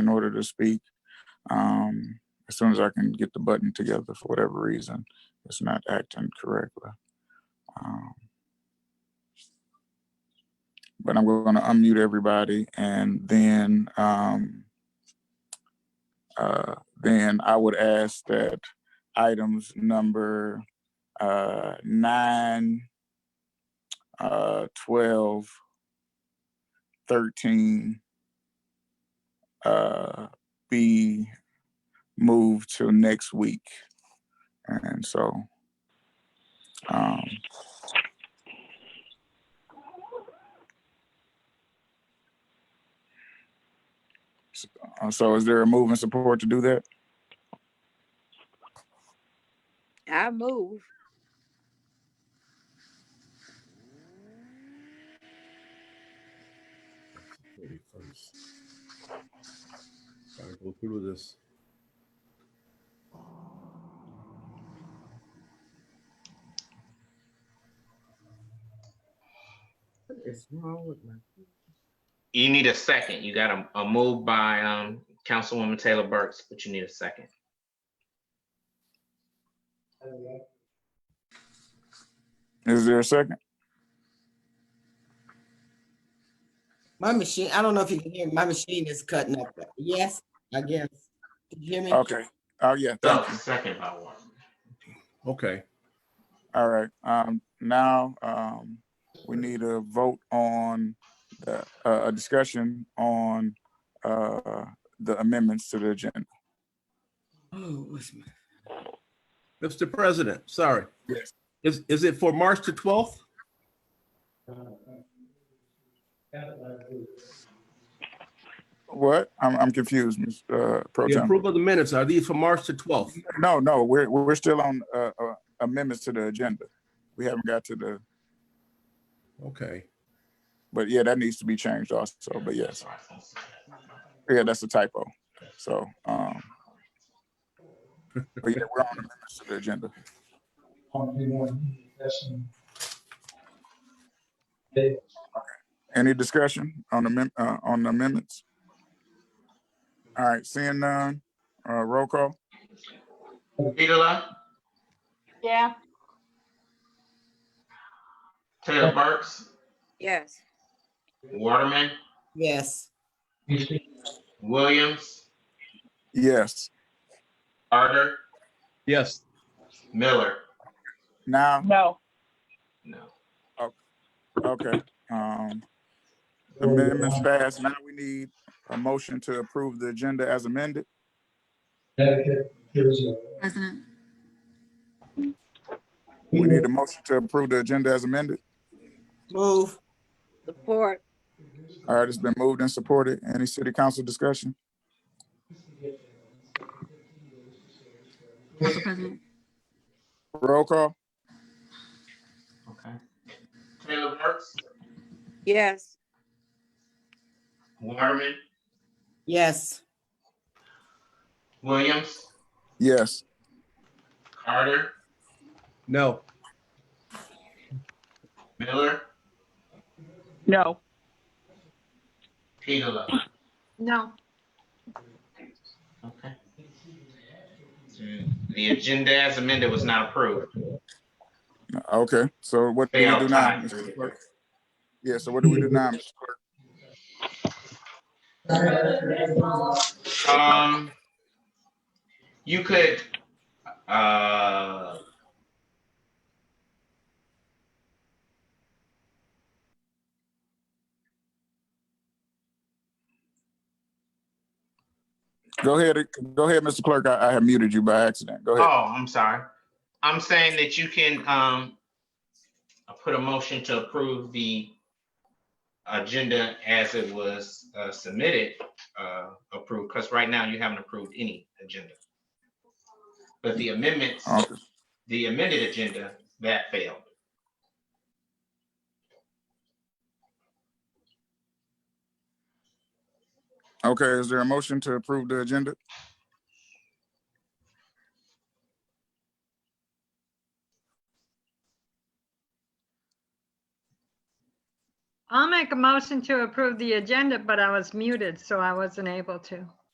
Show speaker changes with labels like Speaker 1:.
Speaker 1: in order to speak. Um, as soon as I can get the button together, for whatever reason, it's not acting correctly. Um, but I'm going to unmute everybody, and then um, uh, then I would ask that items number uh, nine, uh, twelve, thirteen uh, be moved to next week. And so, um, s- uh, so is there a move and support to do that?
Speaker 2: I move.
Speaker 3: Maybe first. Gotta go through this.
Speaker 4: It's wrong with my.
Speaker 5: You need a second. You got a, a move by um Councilwoman Taylor Burks, but you need a second.
Speaker 1: Is there a second?
Speaker 4: My machine, I don't know if you can hear, me. my machine is cutting up. Yes, I guess. Can you hear me?
Speaker 1: Okay. Oh, yeah.
Speaker 5: So
Speaker 1: Thank you.
Speaker 5: second by one.
Speaker 3: Okay,
Speaker 1: All right. Um, now, um, we need a vote on the, uh, a discussion on, uh, the amendments to the agenda.
Speaker 4: Oh, what's my,
Speaker 3: Mr. President, sorry.
Speaker 1: Yes.
Speaker 3: Is, is it for March the twelfth?
Speaker 1: What? I'm, I'm confused, Ms. uh, Pro
Speaker 3: The
Speaker 1: Tem.
Speaker 3: approval of the minutes, are these for March the twelfth?
Speaker 1: No, no, we're, we're still on, uh, uh, amendments to the agenda. We haven't got to the,
Speaker 3: Okay,
Speaker 1: but yeah, that needs to be changed also, but yes. Yeah, that's a typo. So, um, but yeah, we're on amendments to the agenda. Any discussion on amend, uh, on amendments? All right, seeing none, uh, roll call.
Speaker 5: Petola,
Speaker 6: Yeah.
Speaker 5: Taylor Burks,
Speaker 2: Yes.
Speaker 5: Waterman,
Speaker 4: yes,
Speaker 5: Williams,
Speaker 1: Yes.
Speaker 5: Carter,
Speaker 3: yes.
Speaker 5: Miller.
Speaker 1: Now,
Speaker 6: No.
Speaker 5: No.
Speaker 1: okay, um, amendments passed. Now we need a motion to approve the agenda as amended.
Speaker 7: President,
Speaker 1: We need a motion to approve the agenda as amended.
Speaker 4: move,
Speaker 2: Support.
Speaker 1: All right, it's been moved and supported. Any city council discussion?
Speaker 7: Council President,
Speaker 1: Roll call.
Speaker 5: Okay. Taylor Burks,
Speaker 2: Yes.
Speaker 5: Waterman,
Speaker 4: yes,
Speaker 5: Williams,
Speaker 1: Yes.
Speaker 5: Carter,
Speaker 3: No,
Speaker 5: Miller,
Speaker 6: No.
Speaker 5: Petola.
Speaker 6: No.
Speaker 5: Okay. The agenda as amended was not approved.
Speaker 1: Okay, so what do we do
Speaker 5: Failed
Speaker 1: now?
Speaker 5: time.
Speaker 1: Mr. Clerk? Yeah, so what do we do now? Mr. Clerk?
Speaker 5: Um, you could, uh,
Speaker 1: Go ahead, go ahead, Mr. Clerk. I, I have muted you by accident. Go
Speaker 5: oh,
Speaker 1: ahead.
Speaker 5: I'm sorry. I'm saying that you can, um, I put a motion to approve the agenda as it was uh, submitted, uh, approved, because right now you haven't approved any agenda. But the amendments,
Speaker 1: Okay.
Speaker 5: the amended agenda, that failed.
Speaker 1: Okay, is there a motion to approve the agenda?
Speaker 8: I'll make a motion to approve the agenda, but I was muted, so I wasn't able to.